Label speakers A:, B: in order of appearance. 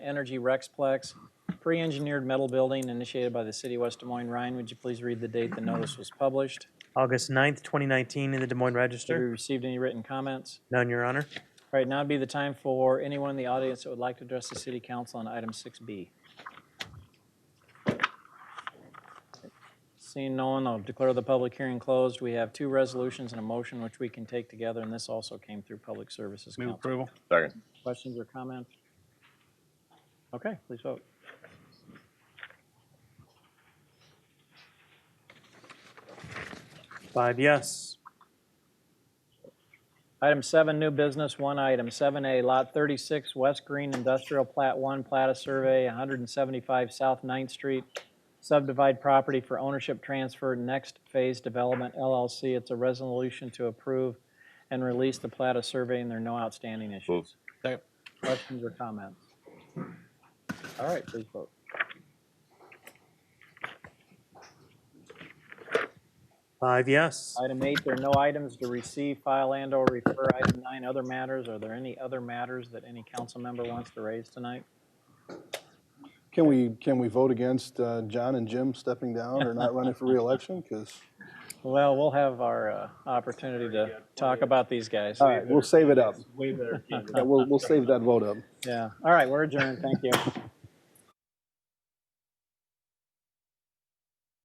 A: Energy Rexplex, pre-engineered metal building initiated by the city of West Des Moines. Ryan, would you please read the date the notice was published?
B: August 9th, 2019, in the Des Moines
A: Have we
B: Register.
A: received any written comments?
B: None, Your Honor.
A: All right, now would be the time for anyone in the audience that would like to address the city council on item 6B. Seeing no one, I'll declare the public hearing closed. We have two resolutions and a motion which we can take together, and this also came through Public Services
C: Move
A: Council.
C: approval.
D: Second.
A: Questions or comments? Okay, please vote.
B: Five yes.
A: Item seven, new business, one item. Seven A, Lot 36, West Green Industrial Plat 1, Plat of Survey, 175 South 9th Street. Subdivide property for ownership transfer, Next Phase Development LLC. It's a resolution to approve and release the plat of survey, and there are no outstanding issues.
D: Move.
A: Questions or comments? All right, please vote.
B: Five yes.
A: Item eight, there are no items to receive, file, and/or refer. Item nine, other matters. Are there any other matters that any council member wants to raise tonight?
E: Can we, can we vote against uh, John and Jim stepping down or not running for reelection? Because,
A: Well, we'll have our uh, opportunity to talk about these guys.
E: all right, we'll save it up.
C: Way better.
E: Yeah, We'll, we'll save that vote up.
A: Yeah. All right, we're adjourned. Thank you.